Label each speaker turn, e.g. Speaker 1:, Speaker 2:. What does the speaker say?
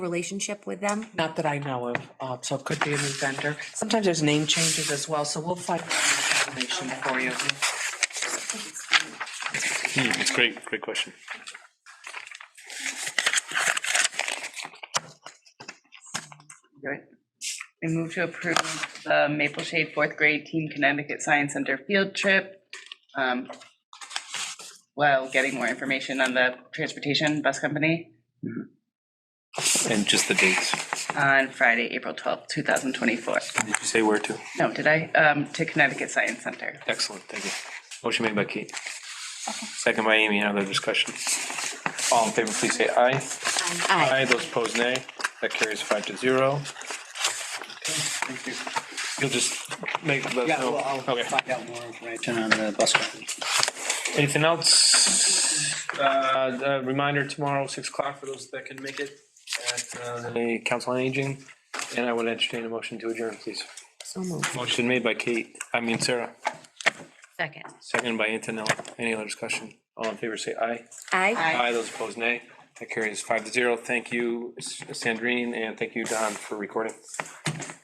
Speaker 1: relationship with them?
Speaker 2: Not that I know of, uh, so it could be a new vendor. Sometimes there's name changes as well, so we'll find out more information for you.
Speaker 3: It's great, great question.
Speaker 4: Right. I move to approve the Maple Shade fourth grade Team Connecticut Science Center field trip. um, While getting more information on the transportation bus company
Speaker 3: And just the dates.
Speaker 4: on Friday, April twelfth, two thousand twenty-four.
Speaker 3: Did you say where to?
Speaker 4: No, did I? Um, To Connecticut Science Center.
Speaker 3: Excellent, thank you. Motion made by Kate. Second by Amy, another discussion. All in favor, please say aye.
Speaker 1: Aye.
Speaker 3: Aye, those opposed nay. That carries five to zero. You'll just make, let us
Speaker 5: Yeah, well,
Speaker 3: know.
Speaker 5: I'll
Speaker 3: Okay.
Speaker 5: find out more information on the bus company.
Speaker 3: Anything else? Uh, a Reminder tomorrow, 6 o'clock for those that can make it at uh, the Council on Aging. And I would entertain a motion to adjourn, please.
Speaker 1: So moved.
Speaker 3: Motion made by Kate, I mean Sarah,
Speaker 1: Second.
Speaker 3: seconded by Antonella. Any other discussion? All in favor, say aye.
Speaker 1: Aye.
Speaker 3: Aye, those opposed, nay. That carries five to zero. Thank you, S- Sandrine, and thank you, Don, for recording.